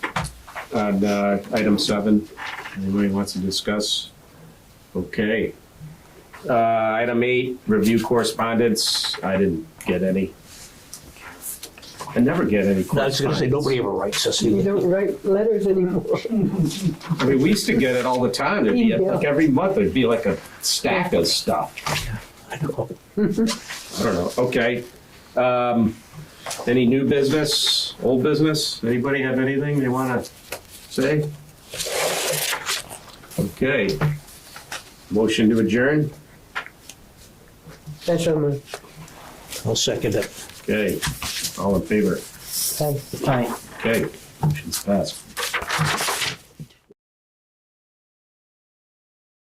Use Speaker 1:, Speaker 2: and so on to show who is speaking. Speaker 1: on uh, item seven. Anybody wants to discuss? Okay. Uh, Item eight, review correspondence. I didn't get any. I never get any
Speaker 2: I was gonna say,
Speaker 1: correspondence.
Speaker 2: nobody ever writes us
Speaker 3: You
Speaker 2: either.
Speaker 3: don't write letters anymore.
Speaker 1: I mean, we used to get it all the time. There'd be, like, every month, there'd be like a stack of stuff.
Speaker 2: I know.
Speaker 1: I don't know. Okay. Um, any new business, old business? Anybody have anything they want to say? Okay. Motion to adjourn?
Speaker 3: That's on the,
Speaker 2: I'll second it.
Speaker 1: Okay. All in favor?
Speaker 3: that's fine.
Speaker 1: Okay. Motion's passed.